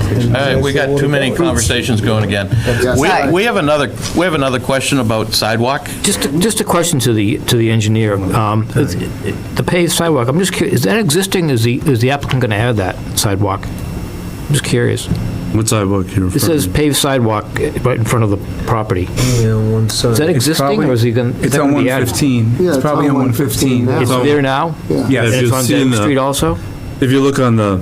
All right, we got too many conversations going again. We we have another, we have another question about sidewalk. Just, just a question to the, to the engineer. Um, is- The paved sidewalk, I'm just curious, is that existing, is the, is the applicant going to add that sidewalk? I'm just curious. What sidewalk here? It says paved sidewalk eh, right in front of the property. Yeah, on one side. Is that existing, or is he going? It's on 115. Yeah, It's it's probably on on 115 115. now. It's So- there now? If Yes. And you've it's on seen Denton the- Street also? If you look on the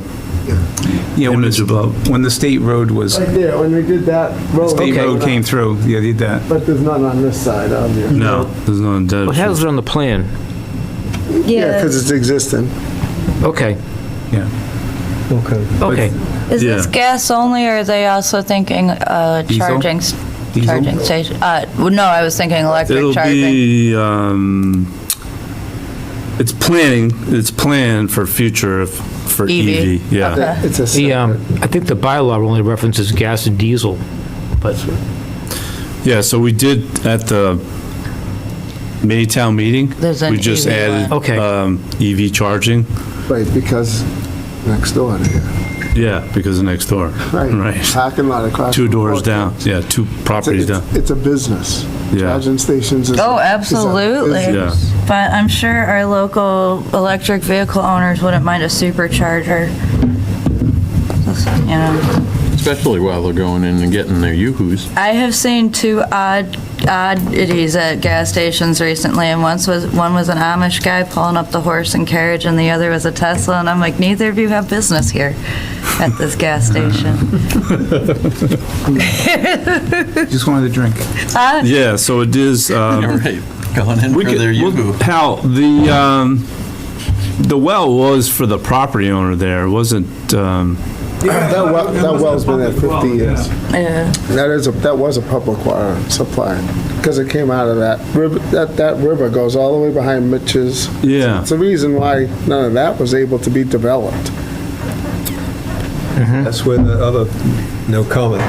Yeah, when image the, above, when the state road was, Right there, when we did that road. state Okay. road came through, yeah, they did that. But there's none on this side, obviously. no, there's no dead. Well, it has it on the plan. Yeah, because it's existing. Okay, Yeah. Okay. okay. Is this Yeah. gas only, or are they also thinking uh, Diesel? charging, s- Diesel? charging station? Uh, well, No, I was thinking electric It'll charging. be, um, it's planning, it's planned for future if- for EV. EV, yeah. Okay. It's a. The, um, I think the bylaw only references gas and diesel, but, Yeah, so we did at the Maytown meeting. There's an We just EV one. added Okay. um, EV charging, Right, because next door to here. yeah, because of next door. Right. Parking lot across. Two from doors Walgreens. down, yeah, two It's a- properties down. It's it's a business. Yeah. Charging stations is. a- Oh, is a absolutely. Yeah. business. But I'm sure our local electric vehicle owners wouldn't mind a supercharger. You know. Especially while they're going in and getting their yoo-hoos. I have seen two odd oddities at gas stations recently, and once was one was an Amish guy pulling up the horse and carriage, and the other was a Tesla. And I'm like, neither of you have business here at this gas station. Just wanted a drink. Huh? Yeah, so it is, um, All right, going in for We could, their well, yoo-hoo. Hal, the, um, the well was for the property owner there, It wasn't, um, That well, that well's been there 50 years. Yeah. That is, a that was a public water supply, because it came out of that river, that, that river goes all the way behind Mitch's. yeah. It's the reason why none of that was able to be developed. That's where the other, no comment.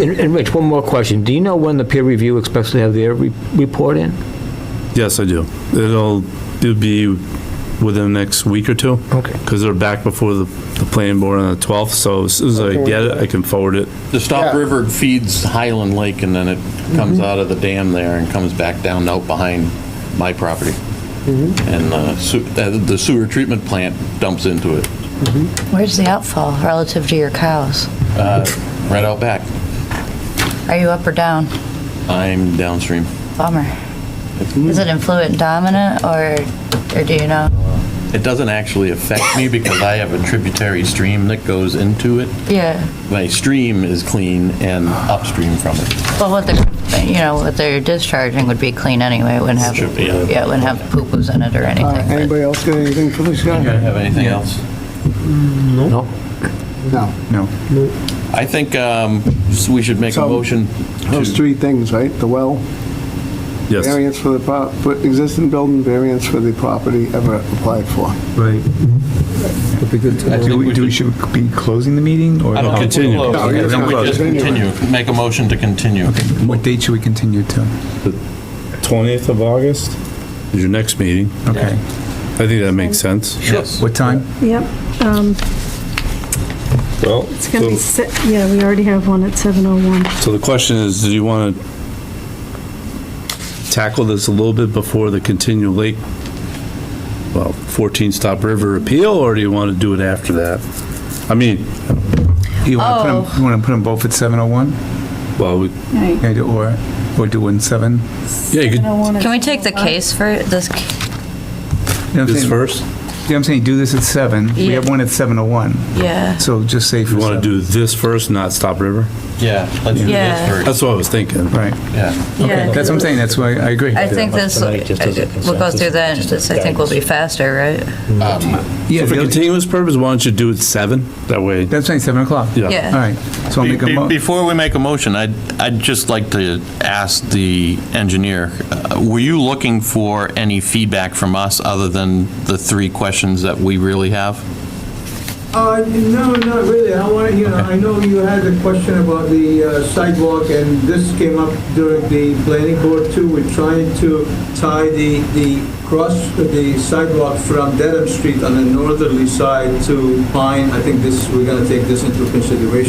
and and Rich, one more question. Do you know when the peer review expects to have their re- report in? Yes, I do. It'll, it'll be within the next week or two. Okay. Because they're back before the, the planning board on the 12th, so as soon as I get it, I can forward it. The Stop Yeah. River feeds Highland Lake, and then it comes out of the dam there and comes back down out behind my property. And uh, su- uh, the sewer treatment plant dumps into it, Where's the outfall relative to your cows? uh, right out back. Are you up or down? I'm downstream. Bummer. Is it influent dominant, or or do you know? It doesn't actually affect me because I have a tributary stream that goes into it. Yeah. My stream is clean and upstream from it. Well, what they're, you know, what they're discharging would be clean anyway. It wouldn't have Should be, yeah. yeah, it wouldn't have poo-poos in it or All right, anything. but- Uh, Anybody else got anything for this guy? Have anything else? No? No. No. I think um, we should make a So- motion Those to, three things, right? The well, Yes. variance for the, pro- for existing building, variance for the property ever applied for. Right. Would be good to know. Do we, do we should be closing the meeting or? I don't know. Continue. Close. No, I you're think we fine. just continue, make a motion to continue. What date should we continue to? 20th of August is your next meeting. Okay. I think that makes sense. Yes. What time? Yep, um, Well, it's gonna be, se- yeah, we already have one at 7:01. So the question is, do you want to tackle this a little bit before the continual lake, well, 14 Stop River appeal, or do you want to do it after that? I mean, You want to put Oh. them, you want to put them both at 7:01? well, we- Yeah, do- Or, or do one 7? yeah, you could, Can we take the case for this? ca- this first? Yeah, I'm saying do this at 7. We Yeah. have one at 7:01. Yeah. So just say for You want to 7. do this first, not Stop River? Yeah, let's do Yeah. this first. That's what I was thinking. Right. Yeah. Yeah. That's what I'm saying. That's why I agree. I think this, Tonight, just as a we'll go through that, consensus, this, just I think will be faster, right? Yeah, So for they'll- continuous purpose, why don't you do it 7? That way, that's saying 7 o'clock. Yeah. Yeah. All right. So I'll Be- make a be- mo, Before we make a motion, I'd, I'd just like to ask the engineer, uh, were you looking for any feedback from us other than the three questions that we really have? Uh, no, not really. I want, you know, I know you had a question about the uh, sidewalk, and this came up during the planning board too. We're trying to tie the, the cross, the sidewalk from Dedham Street on the northerly side to Pine. I think this, we're gonna take this into consideration.